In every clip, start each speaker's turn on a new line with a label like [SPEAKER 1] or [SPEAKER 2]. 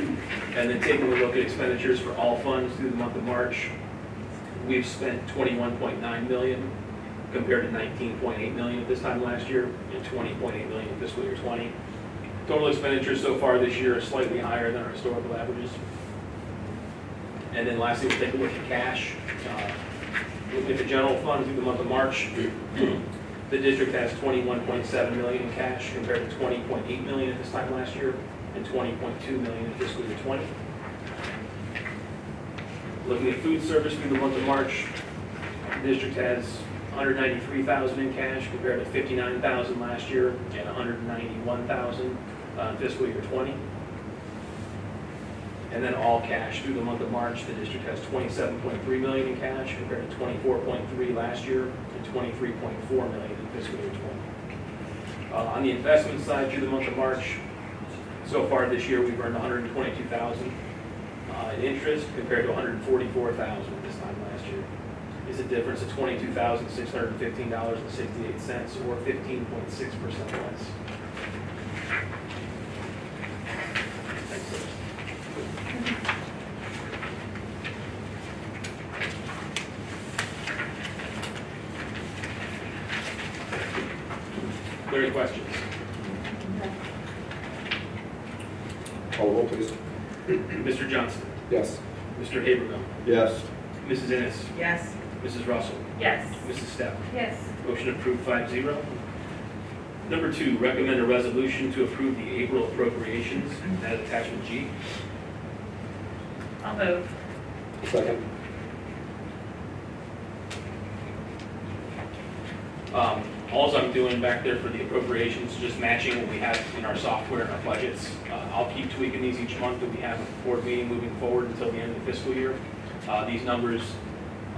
[SPEAKER 1] And then taking a look at expenditures for all funds through the month of March, we've spent 21.9 million compared to 19.8 million at this time last year and 20.8 million in fiscal year 20. Total expenditures so far this year are slightly higher than our historical averages. And then lastly, we'll take a look at cash. Uh, Looking at the general fund through the month of March, the district has 21.7 million in cash compared to 20.8 million at this time last year and 20.2 million in fiscal year 20. Looking at food service through the month of March, the district has 193,000 in cash compared to 59,000 last year and 191,000 uh, fiscal year 20. And then all cash through the month of March, the district has 27.3 million in cash compared to 24.3 last year and 23.4 million in fiscal year 20. Uh, On the investment side, through the month of March, so far this year, we've earned 122,000 uh, in interest compared to 144,000 this time last year. Is a difference of $22,615.68 or 15.6% less. Thanks, sir. Are there any questions?
[SPEAKER 2] Call roll, please.
[SPEAKER 1] Mr. Johnson,
[SPEAKER 2] Yes.
[SPEAKER 1] Mr. Habermill,
[SPEAKER 2] Yes.
[SPEAKER 1] Mrs. Ennis,
[SPEAKER 3] Yes.
[SPEAKER 1] Mrs. Russell,
[SPEAKER 3] Yes.
[SPEAKER 1] Mrs. Steph.
[SPEAKER 3] Yes.
[SPEAKER 1] Motion approved 5-0. Number two, recommend a resolution to approve the April appropriations at attachment G.
[SPEAKER 3] I'll move.
[SPEAKER 2] Second.
[SPEAKER 1] Um, Alls I'm doing back there for the appropriations, is just matching what we have in our software and our budgets. Uh, I'll keep tweaking these each month that we have a board meeting moving forward until the end of the fiscal year. Uh, These numbers,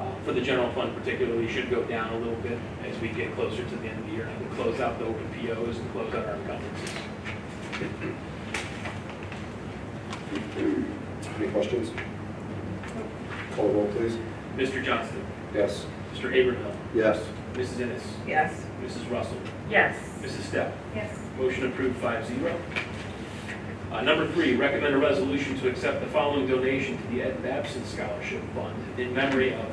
[SPEAKER 1] uh, for the general fund particularly, should go down a little bit as we get closer to the end of the year. And I can close out the open POs and close out our encumbrances.
[SPEAKER 2] Any questions? Call roll, please.
[SPEAKER 1] Mr. Johnston,
[SPEAKER 2] Yes.
[SPEAKER 1] Mr. Abraham,
[SPEAKER 2] Yes.
[SPEAKER 1] Mrs. Ennis,
[SPEAKER 3] Yes.
[SPEAKER 1] Mrs. Russell,
[SPEAKER 3] Yes.
[SPEAKER 1] Mrs. Steph.
[SPEAKER 3] Yes.
[SPEAKER 1] Motion approved 5-0. Uh, Number three, recommend a resolution to accept the following donation to the Ed Babson Scholarship Fund in memory of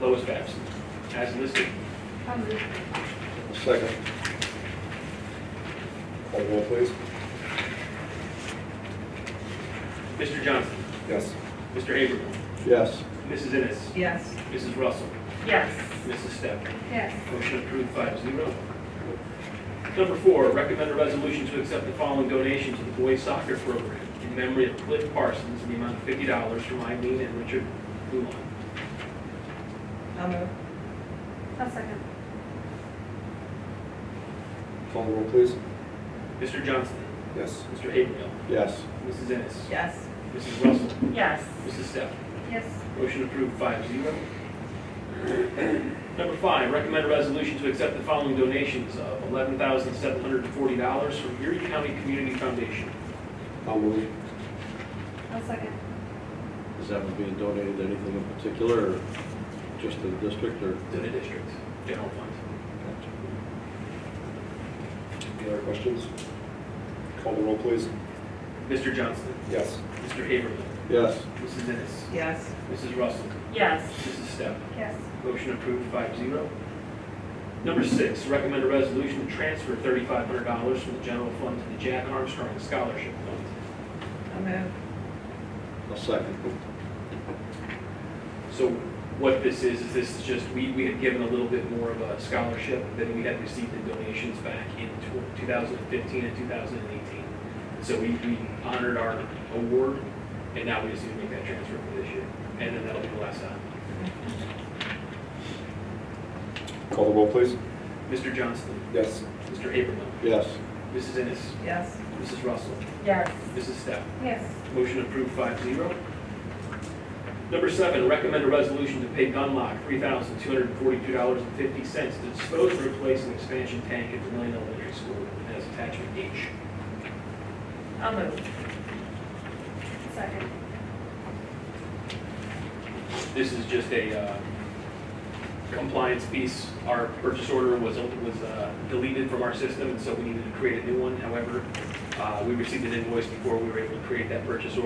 [SPEAKER 1] Lois Babson, as listed.
[SPEAKER 3] I'll move.
[SPEAKER 2] Second. Call roll, please.
[SPEAKER 1] Mr. Johnson,
[SPEAKER 2] Yes.
[SPEAKER 1] Mr. Habermill,
[SPEAKER 2] Yes.
[SPEAKER 1] Mrs. Ennis,
[SPEAKER 3] Yes.
[SPEAKER 1] Mrs. Russell,
[SPEAKER 3] Yes.
[SPEAKER 1] Mrs. Steph.
[SPEAKER 3] Yes.
[SPEAKER 1] Motion approved five zero. Number four, recommend a resolution to accept the following donation to the boys soccer program in memory of Cliff Parsons in the amount of fifty dollars from Eileen and Richard Gulon.
[SPEAKER 3] I'll move.
[SPEAKER 4] I'll second.
[SPEAKER 2] Call roll, please.
[SPEAKER 1] Mr. Johnston,
[SPEAKER 2] Yes.
[SPEAKER 1] Mr. Habermill,
[SPEAKER 2] Yes.
[SPEAKER 1] Mrs. Ennis,
[SPEAKER 3] Yes.
[SPEAKER 1] Mrs. Russell,
[SPEAKER 3] Yes.
[SPEAKER 1] Mrs. Steph.
[SPEAKER 4] Yes.
[SPEAKER 1] Motion approved five zero. Number five, recommend a resolution to accept the following donations of eleven thousand seven hundred and forty dollars from Erie County Community Foundation.
[SPEAKER 2] I'll move.
[SPEAKER 4] I'll second.
[SPEAKER 5] Is that one being donated to anything in particular, or just to the district, or?
[SPEAKER 1] To the district, general fund.
[SPEAKER 2] Any other questions? Call roll, please.
[SPEAKER 1] Mr. Johnston,
[SPEAKER 2] Yes.
[SPEAKER 1] Mr. Habermill,
[SPEAKER 5] Yes.
[SPEAKER 1] Mrs. Ennis,
[SPEAKER 3] Yes.
[SPEAKER 1] Mrs. Russell,
[SPEAKER 3] Yes.
[SPEAKER 1] Mrs. Steph.
[SPEAKER 4] Yes.
[SPEAKER 1] Motion approved five zero. Number six, recommend a resolution to transfer thirty-five hundred dollars from the general fund to the Jack Armstrong Scholarship Fund.
[SPEAKER 3] I'll move.
[SPEAKER 5] A second.
[SPEAKER 1] So what this is, is this is just, we, we had given a little bit more of a scholarship than we had received in donations back in two thousand and fifteen and two thousand and eighteen. So we, we honored our award, and now we just need to make that transfer for this year, and then that'll be the last time.
[SPEAKER 2] Call roll, please.
[SPEAKER 1] Mr. Johnston,
[SPEAKER 2] Yes.
[SPEAKER 1] Mr. Habermill,
[SPEAKER 5] Yes.
[SPEAKER 1] Mrs. Ennis,
[SPEAKER 3] Yes.
[SPEAKER 1] Mrs. Russell,
[SPEAKER 3] Yes.
[SPEAKER 1] Mrs. Steph.
[SPEAKER 4] Yes.
[SPEAKER 1] Motion approved 5-0. Number seven, recommend a resolution to pay Gunlock three thousand two hundred and forty-two dollars and fifty cents to dispose, replace, and expansion tank at Vermillion Elementary School as attachment H.
[SPEAKER 3] I'll move.
[SPEAKER 4] Second.
[SPEAKER 1] This is just a uh, compliance piece. Our purchase order was, was uh, deleted from our system, and so we needed to create a new one. However, uh, we received an invoice before we were able to create that purchase order.